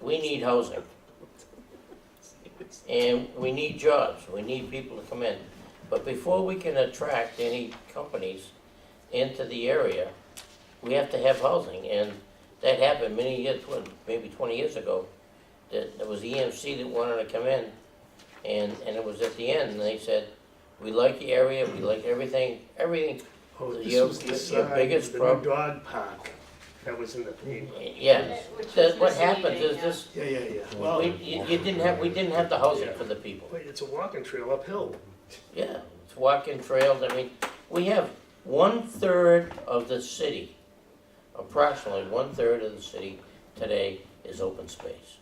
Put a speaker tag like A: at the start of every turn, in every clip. A: We need housing. And we need jobs, we need people to come in. But before we can attract any companies into the area, we have to have housing. And that happened many years, what, maybe twenty years ago. That there was EMC that wanted to come in and, and it was at the end, and they said, we like the area, we like everything, everything,
B: Oh, this
A: Your-
B: was the
A: your
B: side,
A: biggest
B: of the
A: prob-
B: new dog park that was in the paper.
A: yeah.
C: Which
A: That,
C: was
A: what happens is
C: misleading, yeah.
A: this,
B: Yeah, yeah, yeah. Well,
A: we, you you didn't have, we didn't have the housing for the people.
B: wait, it's a walking trail uphill.
A: Yeah, it's walking trails, I mean, we have one-third of the city, approximately one-third of the city today is open space.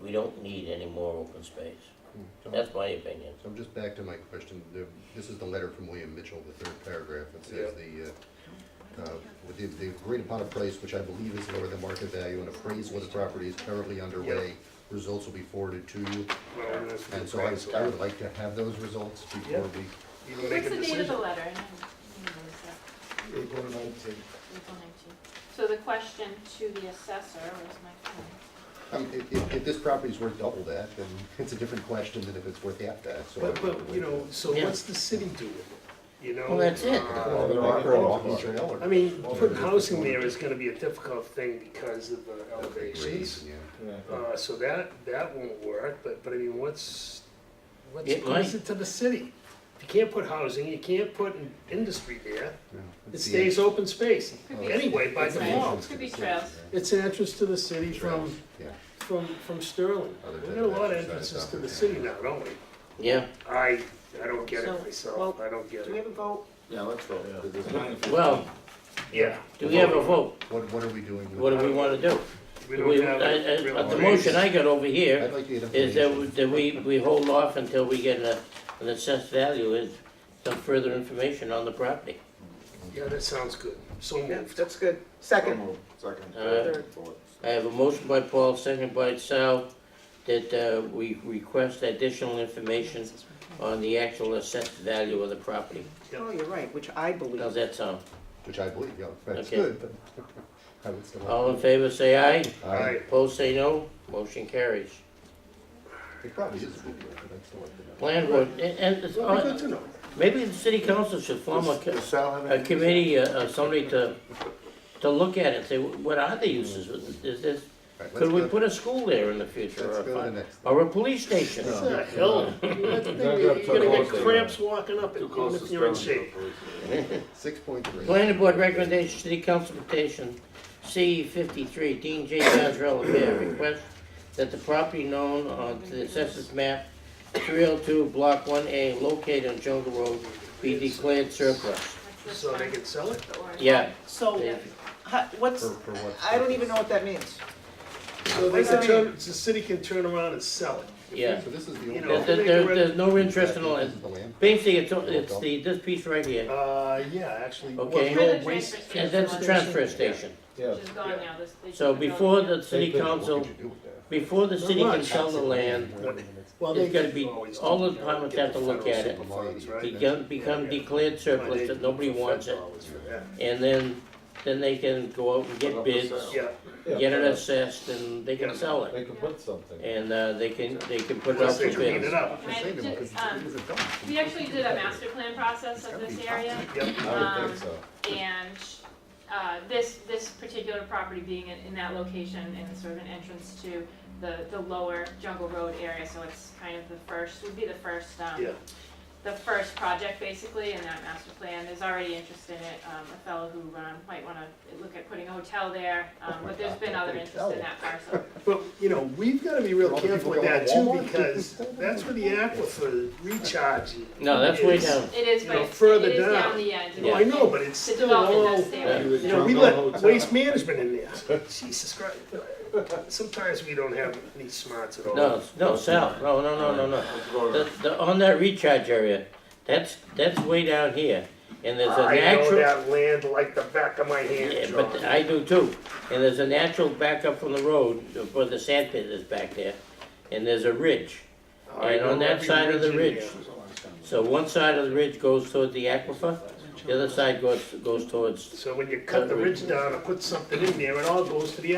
A: We don't need any more open space,
D: Hmm, So
A: that's my opinion.
D: I'm just back to my question, The- this is the letter from William Mitchell, the third paragraph, it says the, uh, uh, with the, they agreed upon a price which I believe is lower than market value and appraised what the property is currently underway, results will be forwarded to you,
B: Well, and that's the
D: and so I,
B: appraisal.
D: I would like to have those results before
B: Yeah.
D: we,
B: You can make
C: What's
B: a
C: the date of the
B: decision.
C: letter? I haven't- I haven't noticed that.
E: April nineteenth.
C: April 19th. So the question to the assessor, where's my phone?
D: I mean, if, if, if this property's worth double that, then it's a different question than if it's worth half that, so. I
B: But,
D: would
B: but, you
D: like to-
B: know, so
A: Yeah.
B: what's the city doing? You know?
A: Well, that's it.
B: uh,
D: Well, they're offering a walking trail or-
B: I mean,
D: Well,
B: putting
D: they're-
B: housing there is gonna be a difficult thing because of the
D: Raise,
B: elevations.
D: yeah.
B: Uh, so that, that won't work, but, but I mean, what's, what's,
A: It
B: what's
A: might.
B: it to the city? You can't put housing, you can't put in- industry there,
D: Yeah.
B: it
D: It's the-
B: stays open space,
C: Could be-
B: anyway, by
C: It's
D: it's the
B: default.
D: entrance to
C: Could
D: the
C: be
D: city,
C: trails.
D: yeah.
B: It's an entrance to the city from,
D: Yeah.
B: from, from Sterling.
D: Other
B: We
D: than
B: got a lot of
D: exercise
B: entrances to the city
D: opportunity.
B: now, don't we?
A: Yeah,
B: I, I don't get
F: So,
B: it myself, I don't get
F: Do we have
B: it.
F: a vote?
E: Yeah, let's go, yeah.
A: well,
B: Yeah.
A: do we have a vote?
D: What, what are we doing with?
A: What do we wanna do?
B: We
A: We-
B: don't have.
A: I-
B: a
A: I-
B: real
A: but The motion I got over
D: I'd
A: here
D: like to get information.
A: is that we- that we, we hold off until we get a, an assessed value and some further information on the property.
B: Yeah, that sounds good, so
F: Yeah,
B: moved.
F: that's good. Second,
E: Second.
A: Uh,
F: third, fourth.
A: I have a motion by Paul, second by Sal, that uh, we request additional information on the actual assessed value of the property.
F: Oh, you're right, which I
A: How's
F: believe.
A: that sound?
D: Which I believe, yeah, that's
A: Okay.
D: good, but I would still.
A: All in favor, say aye.
D: I,
A: Opposed, say no. Motion carries.
D: it probably is a good idea, but I'd still like to know.
A: Plan board, and- and, it's
B: Well, Good to
A: on-
B: know.
A: maybe the city council should form a, co-
E: Sal
A: a committee, uh, uh, somebody to, to look at it, and say, what are the uses? Is this,
D: All right,
A: could we
D: let's go-
A: put a school there in the future?
D: Let's
A: or a
D: go to the
A: fi-
D: next.
A: Or a police station?
B: It's a hell, you're gonna get cramps walking up it, even if you're in shape.
D: Six point three.
A: Planning board recommendation, city council petition, C fifty-three, Dean J. Gazarella, Mayor, request that the property known on the assessors map, three oh two, block one A, located on Jungle Road, be declared surplus.
C: What's this
B: So they
C: one?
B: can sell it?
C: The orange
A: Yeah,
F: So,
A: Yeah.
F: ha- what's,
D: For, for what?
F: I don't even know what that means.
B: So they can turn, the city can turn around and sell it.
A: yeah.
D: So this is the.
B: You
D: only-
B: know,
A: There, there- there- there's no interest in all
D: This
A: that.
D: is the land.
A: Basically, it's, it's the, this piece right here,
B: Uh, yeah, actually. well,
A: Okay.
B: the old
C: For the
B: waste-
C: transfer
A: and that's the transfer station.
C: Which is gone now, this. they
A: So
C: took it out.
A: before the city
D: What could
A: council,
D: you do with that?
A: before the city can sell the land,
B: Well,
A: It's
B: they
A: gotta be-
B: always
A: all
B: do,
A: the
B: you know,
A: departments
B: get
A: have to look
B: federal
A: at it.
B: super funds, right?
A: become, become declared surplus, that nobody wants it. And then, then they can go out and
E: Put
A: get
E: up for
A: bids,
E: sale.
B: Yeah,
A: get it assessed, and they can sell it.
G: They can put something.
A: And, uh, they can, they can put it up
B: unless
A: for
B: they clean it
A: bids.
B: up.
C: Can I
D: Save them,
C: just,
D: 'cause
C: um,
D: it is a dump.
C: We actually did a master plan process of
D: Gotta be
C: this area.
B: Yep.
D: toxic.
G: I would
C: Um,
G: think so.
C: And uh, this, this particular property being in in that location and sort of an entrance to the, the lower Jungle Road area, so it's kind of the first, would be the first, um,
B: Yeah.
C: the first project basically in that master plan. There's already interest in it, um, a fellow who um, might want to look at putting a hotel there, um, but there's been other interest in that parcel.
B: But, you know, we've gotta be real
D: All the
B: careful with
D: people
B: that
D: going
B: too,
D: to Walmart?
B: because that's where the aquifer recharge.
A: No, that's way
B: is.
A: down.
C: It is,
B: You
C: but
B: know,
C: it's-
B: further
C: it is
B: down.
C: down the end.
B: Well, I know, but it's
C: The
B: still
C: development
B: all,
C: that's there.
B: you know, we
E: Jungle
B: let
E: Hotel.
D: uh,
B: waste management in there. Jesus Christ. Sometimes we don't have any smarts at all.
A: No, no, Sal, no, no, no, no, no. The, the, on that recharge area, that's, that's way down here, and there's a
B: I know
A: natural,
B: that land like the back of my hand,
A: yeah,
B: John.
A: but I do too. And there's a natural backup from the road, where the sand pit is back there, and there's a ridge.
B: I
A: and on
B: know
A: that
B: every
A: side of the
B: in
A: ridge.
B: there.
A: So one side of the ridge goes toward the aquifer, the other side goes, goes towards
B: So when you cut the ridge down and put something in there, it all goes to the